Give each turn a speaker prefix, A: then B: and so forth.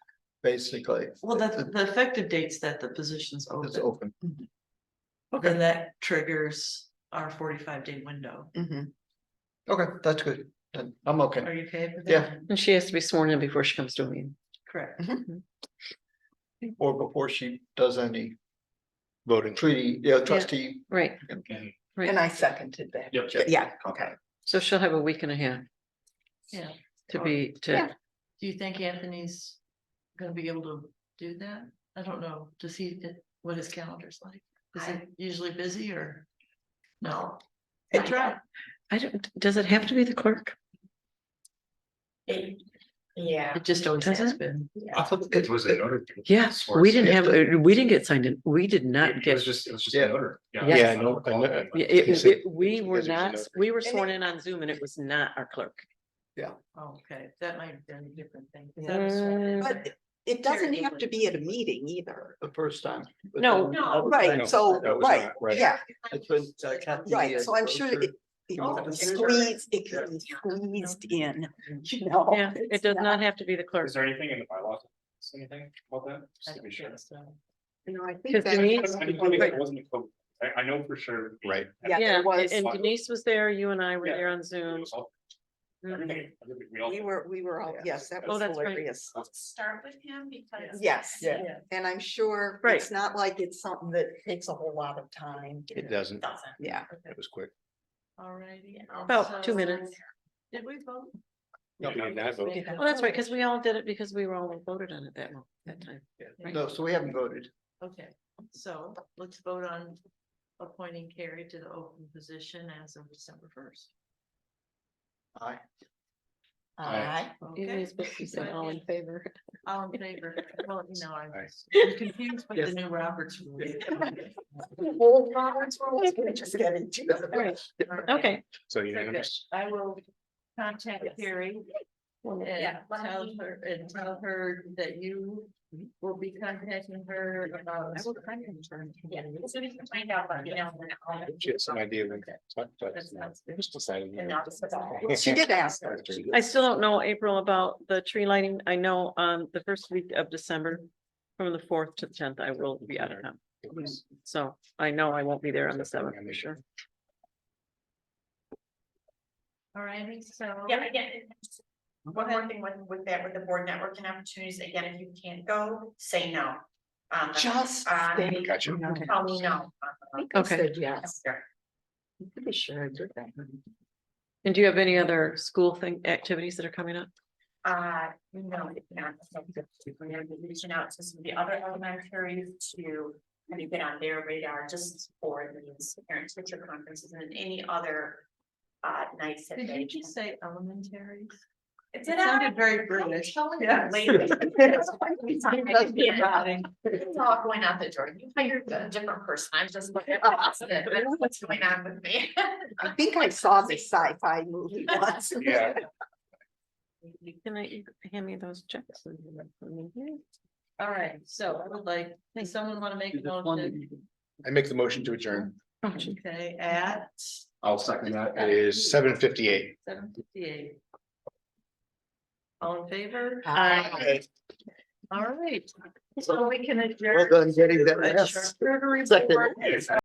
A: basically.
B: Well, the, the effective dates that the position's
A: Uh, It's
B: open,
A: open. Okay,
B: and that triggers our forty-five day window.
C: Mm-hmm.
A: okay, that's good. Then I'm okay.
B: Are you okay with that?
A: Yeah.
C: And she has to be sworn in before she comes to a meeting.
B: Correct.
A: Or before she does any
D: voting.
A: treaty, yeah, trustee.
C: Right,
E: And I seconded that.
D: Yep.
E: Yeah, okay.
C: so she'll have a week and a half
B: Yeah.
C: to be, to,
E: Yeah.
B: Do you think Anthony's gonna be able to do that? I don't know. Does he, what his calendar's like? Is it usually busy or? No. That's right.
C: I don't, does it have to be the clerk?
E: Yeah.
B: It just always
C: Does
B: has
C: it?
B: been.
A: I thought it-
D: was
A: it-
D: order?
C: Yes,
D: Sworn
C: we didn't
D: in.
C: have, uh, we didn't get signed in, we did not get.
D: just, it was just
A: Yeah.
D: order.
C: Yes.
D: Yeah, I know, I know.
C: Yeah, it-
D: He said-
C: it- we
D: you
C: were
D: guys are
C: not,
D: just
C: we were
E: And
C: sworn in on Zoom and it was not our clerk.
B: Oh, Okay, that might have been a different thing. 'cause that was-
C: Uh,
E: But it doesn't have to be at a meeting either.
A: The first time. but
C: No.
A: then-
B: No.
D: No,
E: Right, so,
D: that was
E: right,
D: not right.
E: yeah,
A: It's been, uh, Kathy,
E: Right,
A: uh,
E: so I'm sure
A: Roser-
E: it- it
A: Oh,
E: can be
A: sure.
E: squeezed, it can be squeezed in, you know?
C: Yeah, it
E: Oh, It's
C: does not have to be the clerk.
D: Is there anything in the bylaws? Say Anything about that?
B: I
D: Just to be
B: think
D: sure.
B: that's, uh,
E: You know, I
C: Cause
E: think
C: Denise-
E: that.
D: I just wanna make sure it wasn't a code. I, I know for sure.
A: Right.
E: Yeah, there
C: Yeah,
E: was-
C: and Denise was there, you and I were
D: Yeah.
C: there on Zoom.
D: Everything- everything we all-
E: We were, we were all, yes, that
C: Oh,
E: was
C: that's right.
E: hilarious.
B: Start with him because.
E: Yes.
A: Yeah.
E: And I'm sure
C: Right.
E: it's not like it's something that takes a whole lot of time.
D: It doesn't.
B: Doesn't.
E: Yeah.
B: Okay.
D: It was quick.
B: Alrighty. and
C: About two
B: so-
C: minutes.
B: Did we vote?
D: No, we did not vote.
B: Okay.
C: Well, that's right, because we all did it because we were all voted on it that mo- that time.
A: Yeah. No, so we haven't voted.
B: Okay, so let's vote on appointing Carrie to the open position as of December first.
A: Aye.
D: Aye.
C: It
B: Okay,
C: is, but you said all in favor.
B: all in favor, well, you know, I'm
D: Aye.
B: I'm confused with the
A: Yes.
B: new Roberts. rule.
E: Old Roberts rules, we're just getting to it.
C: Right,
B: All right,
C: okay,
D: So
B: so good.
D: unanimous.
B: I will contact Carrie and
F: Yeah, let
B: tell
F: me-
B: her, and tell her that you
F: Mm-hmm.
B: will be contacting her about.
F: Yeah, so we can find out, but you know. we're not-
D: She had some idea when. talked about
F: That's
D: it.
F: not-
D: It was decided.
F: And not just about-
E: She did ask her.
C: I still don't know, April, about the tree lighting. I know um the first week of December. From the fourth to the tenth, I will be out of town,
D: It was-
C: so I know I won't be there on the seventh for sure.
B: All righty, so.
F: Yeah, again. One more thing with, with that, with the board networking opportunities, again, if you can't go, say no. Um,
E: Just.
F: Uh,
E: think,
D: Gotcha.
E: you know,
C: Okay.
F: tell me no.
E: I think I
C: Okay.
E: said Yes.
F: Sure.
E: I'm pretty sure I did that.
C: And do you have any other school thing, activities that are coming up?
F: Uh, no, we cannot. We're gonna be reaching out to some of the other elementaries to kind of get on their radar just for these parent teacher conferences and any other. Uh, nights that
B: Did
F: they.
B: you just say elementaries?
F: It
B: It sounded very British. Yeah.
F: It's all going out the door. You hired a different person. I'm just looking at what's in it. I don't know what's going on with me.
E: I think I saw the sci-fi movie once.
D: Yeah.
C: Can I, you hand me those checks? Oh,
B: All right, so I would like, does someone want to make a motion?
D: I make the motion to adjourn.
C: Oh, gee.
B: Okay, at
D: I'll second that. It is seven fifty-eight.
B: seven fifty-eight. All in favor?
E: Aye.
B: All right, so we can adjourn.
A: Well done getting that.
B: Adjourn.
A: last- Second.